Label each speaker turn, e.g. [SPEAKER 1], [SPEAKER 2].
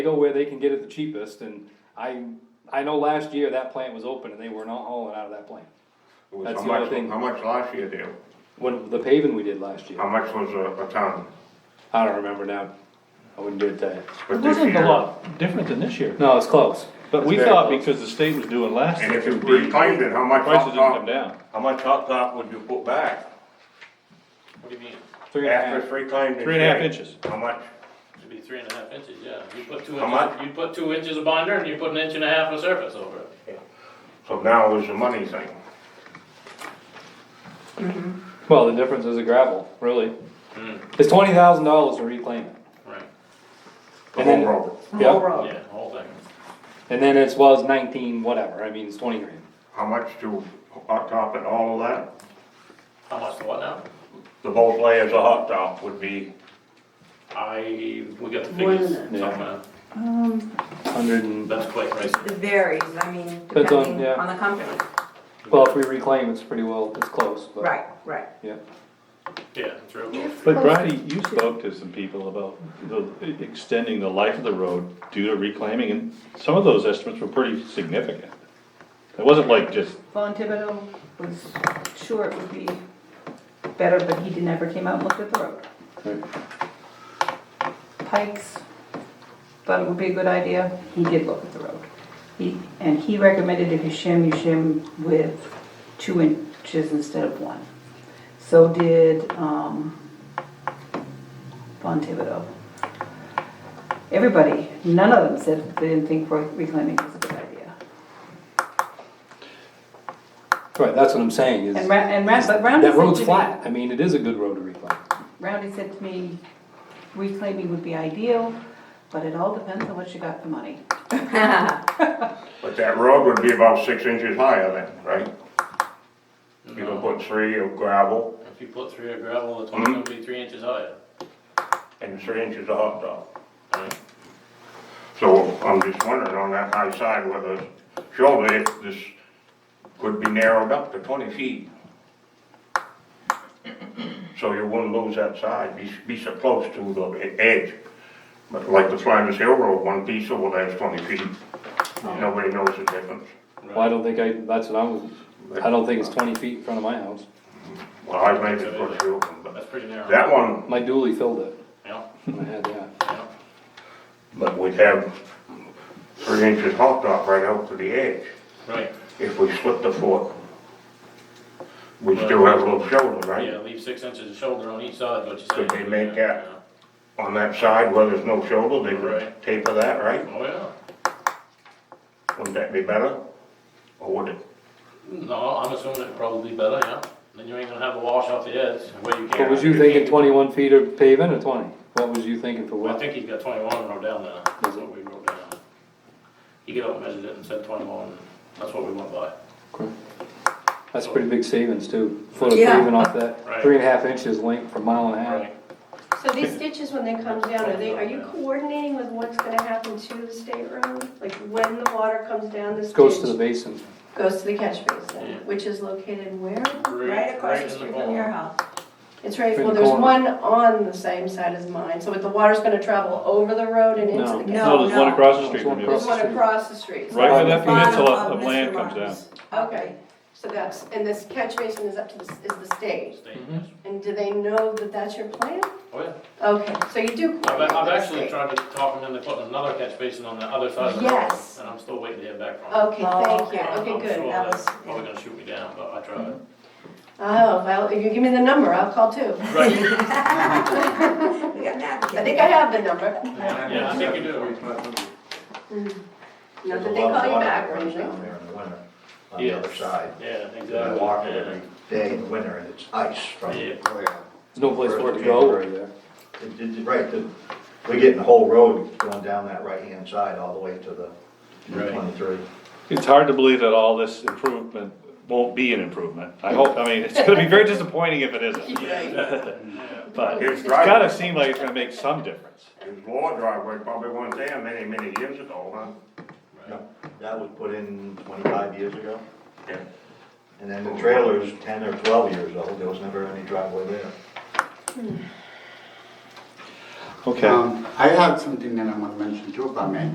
[SPEAKER 1] They go where they can get it the cheapest, and I, I know last year that plant was open and they were not hauling out of that plant.
[SPEAKER 2] It was
[SPEAKER 1] That's
[SPEAKER 2] how
[SPEAKER 1] the other
[SPEAKER 2] much-
[SPEAKER 1] thing.
[SPEAKER 2] How much last year, Dale?
[SPEAKER 1] When the paving we did last year,
[SPEAKER 2] How much was uh, a, a ton?
[SPEAKER 1] I don't remember now, I wouldn't be able to tell you.
[SPEAKER 2] But
[SPEAKER 3] It
[SPEAKER 2] this
[SPEAKER 3] wasn't a
[SPEAKER 2] year-
[SPEAKER 3] lot different than this year,
[SPEAKER 1] No, it's close,
[SPEAKER 3] but we
[SPEAKER 2] It's very
[SPEAKER 3] thought
[SPEAKER 2] close.
[SPEAKER 3] because the state was doing last
[SPEAKER 2] And
[SPEAKER 3] year,
[SPEAKER 2] if
[SPEAKER 3] it
[SPEAKER 2] you
[SPEAKER 3] would be,
[SPEAKER 2] reclaimed it, how much
[SPEAKER 3] prices
[SPEAKER 2] hot
[SPEAKER 3] didn't come
[SPEAKER 2] top?
[SPEAKER 3] down.
[SPEAKER 4] How much hot top would you put back?
[SPEAKER 5] What do you mean?
[SPEAKER 1] three and a
[SPEAKER 2] After
[SPEAKER 1] half.
[SPEAKER 2] it's reclaimed. and
[SPEAKER 3] Three and a half
[SPEAKER 2] shaped,
[SPEAKER 3] inches.
[SPEAKER 2] How much?
[SPEAKER 5] Should be three and a half inches, yeah. You put two
[SPEAKER 2] How much?
[SPEAKER 5] inches, you put two inches of binder and you put an inch and a half of surface over it.
[SPEAKER 2] So now is the money thing.
[SPEAKER 1] Well, the difference is a gravel, really.
[SPEAKER 2] Hmm.
[SPEAKER 1] It's twenty thousand dollars to reclaim it.
[SPEAKER 5] Right,
[SPEAKER 2] The
[SPEAKER 1] And
[SPEAKER 2] whole
[SPEAKER 1] then-
[SPEAKER 2] road.
[SPEAKER 1] Yeah.
[SPEAKER 6] Whole road.
[SPEAKER 5] yeah, the whole thing.
[SPEAKER 1] And then it's, well, it's nineteen, whatever, I mean, it's twenty grand.
[SPEAKER 2] How much to hot top and all of that?
[SPEAKER 5] How much for what now?
[SPEAKER 2] The both layers of hot top would be,
[SPEAKER 5] I, we got the
[SPEAKER 6] More than
[SPEAKER 1] that.
[SPEAKER 5] figures
[SPEAKER 1] Yeah.
[SPEAKER 5] somewhere.
[SPEAKER 6] Um,
[SPEAKER 1] Hundred and,
[SPEAKER 5] That's quite right.
[SPEAKER 6] it varies, I mean,
[SPEAKER 1] Depends on-
[SPEAKER 6] depending
[SPEAKER 1] yeah.
[SPEAKER 6] on the company.
[SPEAKER 1] well, if we reclaim, it's pretty well, it's close, but.
[SPEAKER 6] Right, right.
[SPEAKER 1] Yeah.
[SPEAKER 5] Yeah, it's real close.
[SPEAKER 3] But Brady, you spoke to some people about the, e, extending the life of the road due to reclaiming, and some of those estimates were pretty significant. It wasn't like just,
[SPEAKER 7] Von Thibodeau was sure it would be better, but he did- never came out and looked at the road. Pikes, thought it would be a good idea, he did look at the road. He, and he recommended if you shim, you shim with two inches instead of one. So did, um, Von Thibodeau. Everybody, none of them said they didn't think reclaiming was a good idea.
[SPEAKER 1] Right, that's what I'm saying, is
[SPEAKER 7] And Ra, and Ra, but Roundy said
[SPEAKER 1] that
[SPEAKER 7] to me.
[SPEAKER 1] road's flat, I mean, it is a good road to reclaim.
[SPEAKER 7] Roundy said to me, reclaiming would be ideal, but it all depends on what you got for money.
[SPEAKER 2] but that road would be about six inches higher then, right? You can put three of gravel
[SPEAKER 5] If you put three of gravel,
[SPEAKER 2] Mm-hmm.
[SPEAKER 5] it's only gonna be three inches higher.
[SPEAKER 2] and three inches of hot top.
[SPEAKER 1] Mm.
[SPEAKER 5] Right.
[SPEAKER 2] So I'm just wondering on that high side whether, surely if this could be narrowed up to twenty feet. So you wouldn't lose that side, be, be so close to the e- edge. But like the Flinders Hill Road, one piece over there is twenty feet.
[SPEAKER 1] Mm.
[SPEAKER 2] Nobody knows the difference.
[SPEAKER 1] Well, I don't think I, that's what I was, I don't think it's twenty feet in front of my house.
[SPEAKER 2] Well, I made it for you, but
[SPEAKER 5] That's pretty narrow.
[SPEAKER 2] that one,
[SPEAKER 1] My dually filled it
[SPEAKER 5] Yeah,
[SPEAKER 1] when I had that.
[SPEAKER 5] yeah.
[SPEAKER 2] but we'd have three inches hot top right out to the edge.
[SPEAKER 5] Right,
[SPEAKER 2] If we split the fork, we still have a little shoulder, right?
[SPEAKER 5] yeah, leave six inches of shoulder on each side, what you say.
[SPEAKER 2] Could they make
[SPEAKER 5] Yeah,
[SPEAKER 2] that? On that side where there's no shoulder, they
[SPEAKER 5] Right.
[SPEAKER 2] could taper that,
[SPEAKER 5] yeah.
[SPEAKER 2] right?
[SPEAKER 5] Oh, yeah.
[SPEAKER 2] Wouldn't that be better? Or would it?
[SPEAKER 5] No, I'm assuming it'd probably be better, yeah. Then you ain't gonna have a wash off the edge where you
[SPEAKER 1] What
[SPEAKER 5] can.
[SPEAKER 1] was you thinking, twenty-one feet of paving or twenty? What was you thinking for
[SPEAKER 5] Well, I
[SPEAKER 1] what?
[SPEAKER 5] think he's got twenty-one wrote down there, that's what we wrote down. He got up and measured it and said twenty-one, that's what we went by.
[SPEAKER 1] That's pretty big savings too, foot of
[SPEAKER 6] Yeah.
[SPEAKER 1] paving off that,
[SPEAKER 5] Right.
[SPEAKER 1] three and a half inches length per mile and a half.
[SPEAKER 5] Right.
[SPEAKER 8] So these ditches, when they come down, are they, are you coordinating with what's gonna happen to the state road? Like when the water comes down this ditch?
[SPEAKER 1] Goes to the basin.
[SPEAKER 8] Goes to the catch
[SPEAKER 5] Yeah.
[SPEAKER 8] basin, which is located where?
[SPEAKER 6] Right across the street from your
[SPEAKER 5] corner.
[SPEAKER 6] house.
[SPEAKER 8] It's right,
[SPEAKER 1] In
[SPEAKER 8] well,
[SPEAKER 1] the
[SPEAKER 8] there's
[SPEAKER 1] corner.
[SPEAKER 8] one on the same side as mine, so if the water's gonna travel over the road and into
[SPEAKER 1] No.
[SPEAKER 8] the
[SPEAKER 6] No,
[SPEAKER 8] catch.
[SPEAKER 3] no, there's one
[SPEAKER 6] no.
[SPEAKER 3] across the
[SPEAKER 1] There's
[SPEAKER 3] street
[SPEAKER 1] one
[SPEAKER 3] from you.
[SPEAKER 8] There's
[SPEAKER 1] across-
[SPEAKER 8] one across the street.
[SPEAKER 3] Right where
[SPEAKER 1] Bottom
[SPEAKER 3] that
[SPEAKER 1] of
[SPEAKER 3] peninsula
[SPEAKER 6] Bottom
[SPEAKER 3] of
[SPEAKER 6] of
[SPEAKER 3] land
[SPEAKER 6] Mr.
[SPEAKER 3] comes down.
[SPEAKER 6] Martin's.
[SPEAKER 8] Okay, so that's, and this catch basin is up to the, is the state,
[SPEAKER 5] State,
[SPEAKER 1] Mhm.
[SPEAKER 8] and do they know that that's your plan?
[SPEAKER 5] Oh, yeah.
[SPEAKER 8] Okay, so you do coordinate
[SPEAKER 5] I've, I've
[SPEAKER 8] with the
[SPEAKER 5] actually
[SPEAKER 8] state.
[SPEAKER 5] tried to talk him into putting another catch basin on the other side of the road.
[SPEAKER 8] Yes.
[SPEAKER 5] And I'm still waiting to hear back from him.
[SPEAKER 8] Okay,
[SPEAKER 6] Oh,
[SPEAKER 8] thank you,
[SPEAKER 5] I'm-
[SPEAKER 8] okay,
[SPEAKER 5] I'm sure
[SPEAKER 8] good, that
[SPEAKER 5] they're
[SPEAKER 6] was-
[SPEAKER 5] Probably gonna shoot me down, but I tried.
[SPEAKER 8] Oh, well, if you give me the number, I'll call too.
[SPEAKER 5] Right,
[SPEAKER 6] We got napkins.
[SPEAKER 8] I think I have the number.
[SPEAKER 5] yeah, I think you do.
[SPEAKER 8] Not
[SPEAKER 9] There's
[SPEAKER 8] that
[SPEAKER 9] a
[SPEAKER 8] they
[SPEAKER 9] lot of
[SPEAKER 8] call you
[SPEAKER 9] water
[SPEAKER 8] back or
[SPEAKER 9] runs
[SPEAKER 8] anything.
[SPEAKER 9] Down there in the winter, on the
[SPEAKER 5] Yes.
[SPEAKER 9] other side.
[SPEAKER 5] Yeah, exactly.
[SPEAKER 9] I walk it
[SPEAKER 5] Yeah.
[SPEAKER 9] every day in the winter and it's ice from,
[SPEAKER 5] Yeah.
[SPEAKER 9] it,
[SPEAKER 1] There's no place for it to go over there.
[SPEAKER 9] it- right, the- we're getting the whole road going down that right-hand side all the way to the
[SPEAKER 5] Right.
[SPEAKER 9] twenty-three.
[SPEAKER 3] It's hard to believe that all this improvement won't be an improvement. I hope, I mean, it's gonna be very disappointing if it isn't. But
[SPEAKER 2] It's
[SPEAKER 3] it's gotta
[SPEAKER 2] driveway,
[SPEAKER 3] seem like it's gonna make some difference.
[SPEAKER 2] his law driveway probably wasn't there many, many years ago, huh?
[SPEAKER 9] That was put in twenty-five years ago,
[SPEAKER 2] Yeah.
[SPEAKER 9] and then the trailer's ten or twelve years old, there was never any driveway there.
[SPEAKER 10] Okay.
[SPEAKER 9] Um, I have something that I want to mention too, if I may.